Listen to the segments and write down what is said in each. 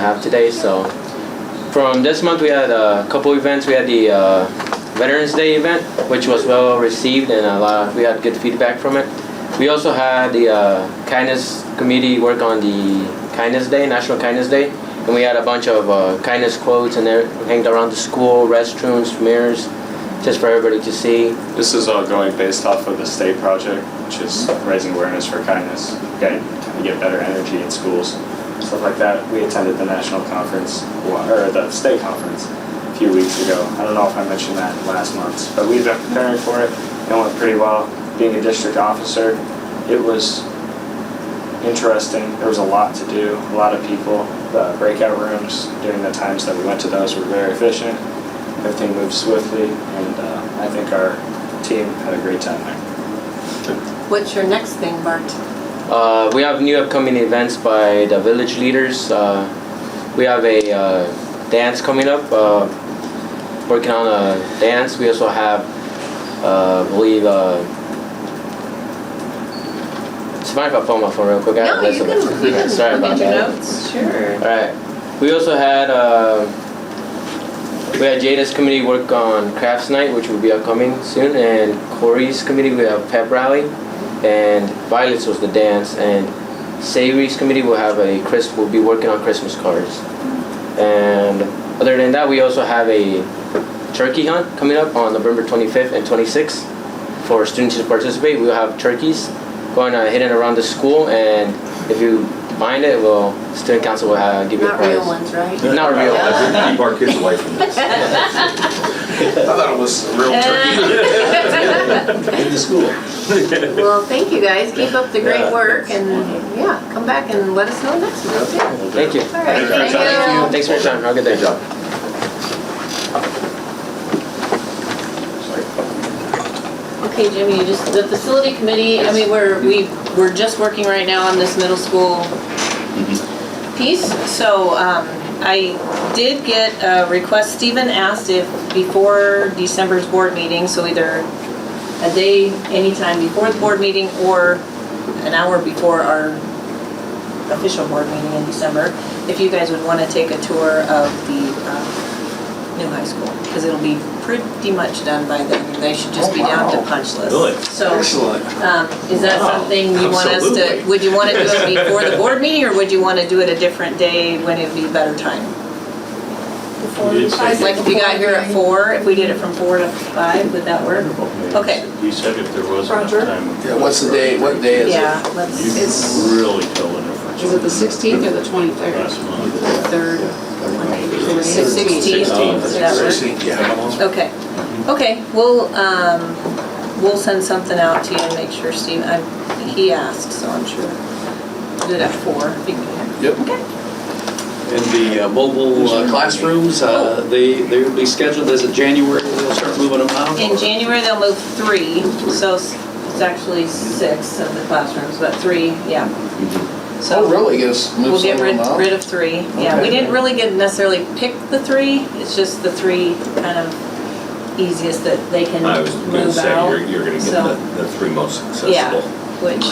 have today. So from this month, we had a couple events. We had the uh, Veterans Day event, which was well received, and a lot we had good feedback from it. We also had the uh, kindness committee work on the kindness day, National Kindness Day, and we had a bunch of uh, kindness quotes and they hanged around the school, restrooms, mirrors, just for everybody to see. This is all going based off of the state project, which is raising awareness for kindness, get, to get better energy in schools, stuff like that. We attended the national conference, or the state conference, a few weeks ago. I don't know if I mentioned that last month, but we've been preparing for it, and it went pretty well. Being a district officer, it was interesting. There was a lot to do, a lot of people. The breakout rooms during the times that we went to those were very efficient. Everything moved swiftly, and uh, I think our team had a great time there. What's your next thing, Bart? Uh, we have new upcoming events by the village leaders. Uh, we have a uh, dance coming up, uh, working on a dance. We also have, uh, I believe, uh, it's fine if I pull my phone real quick. I have No, this you in it. can, you can Sorry look at about your that. notes, sure. All right. We also had uh, we had Jada's committee work on crafts night, which will be upcoming soon, and Corey's committee we have pep rally, and Violet's was the dance, and Savory's committee will have a Chris will be working on Christmas cards, and other than that, we also have a turkey hunt coming up on November 25th and 26th for students to participate. We'll have turkeys going uh, hidden around the school, and if you find it, well, student council will uh, give you a Not prize. real ones, right? Not real. Keep our kids away from this. I thought it was a real Uh, turkey. In the school. Well, thank you guys, keep up the great work and, yeah, come back and let us know next month. yeah. Thank you. All right, Thank you. thank you. Thanks for your time. Have a good day. Good job. Okay, Jimmy, you just, the facility committee, I mean, we're, we, we're just working right now on this middle school piece, so, um, I did get a request, Stephen asked if before December's board meeting, so either a day, anytime before the board meeting, or an hour before our official board meeting in December, if you guys would wanna take a tour of the, um, new high school, because it'll be pretty much done by then. They should just be down to punch list. Really? So, Excellent. um, is that Wow, something you want us to, absolutely. would you want to do it before the board meeting, or would you want to do it a different day when it'd be a better time? Like if you got here at four, if we did it from four to five, would that work? Okay. You said if there was enough Roger. time. Yeah, what's the day, what day is it? Yeah, let's, You It's- can really tell the difference. Is it the 16th or the 23rd? Last month. Third. sixteen, does that work? Sixteenth, yeah. Okay, okay, we'll, um, we'll send something out to you and make sure Steve, I, he asked, so I'm sure. Do it at four, if you can. Yep. Okay. And the uh, mobile uh, classrooms, uh, they, they'll be scheduled as of January, we'll start moving them out. In January, they'll move three, so s- it's actually six of the classrooms, but three, yeah. So Oh, really, yes, move We'll some of get them rid, out? rid of three, yeah. We Okay. didn't really get necessarily pick the three, it's just the three kind of easiest that they can move out. I was gonna say, you're, you're gonna get So, the, the three most Yeah, accessible. which,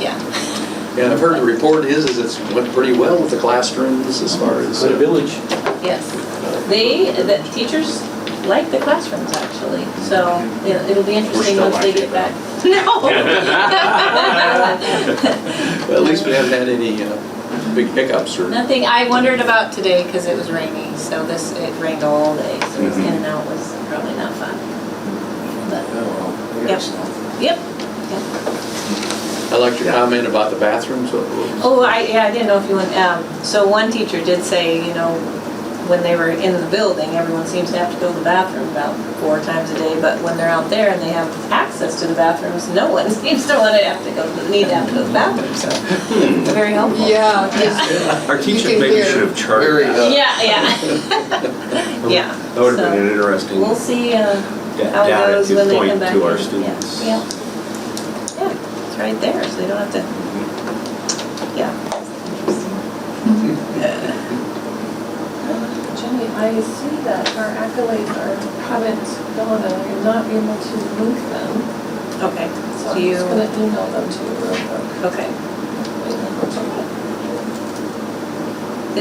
yeah, And I've heard the report is, is it's went pretty well with the classrooms as far as. uh, yes. They, the teachers like the classrooms actually, so it- it'll be interesting still once they liking get back. No. At least we haven't had any uh, big hiccups or. Nothing, I wondered about today because it was rainy, so this, it rained all day, so this in Mm-hmm. and out was probably not fun. But, Oh, Yep. yep. I liked your comment about the bathrooms. What- what- Oh, I, yeah, I didn't know if you went, um, so one teacher did say, you know, when they were in the building, everyone seems to have to go to the bathroom about four times a day, but when they're out there and they have access to the bathrooms, no one seems to want to have to go, to need to have to go to the bathroom, so, Hmm. very helpful. Oh, Yeah, Our teacher can maybe hear should have Very, charged. uh, Yeah, yeah. Yeah. That would so have been an interesting We'll see, uh, how it data goes to when they come point back. to in. our Yeah, students. Yeah, yeah, it's right there, so they don't have to, yeah. Hmm. Jenny, I see that our accolades are, haven't gone, and I'm not able to link them, Okay, so so I'm you, just gonna email them to you real quick. okay,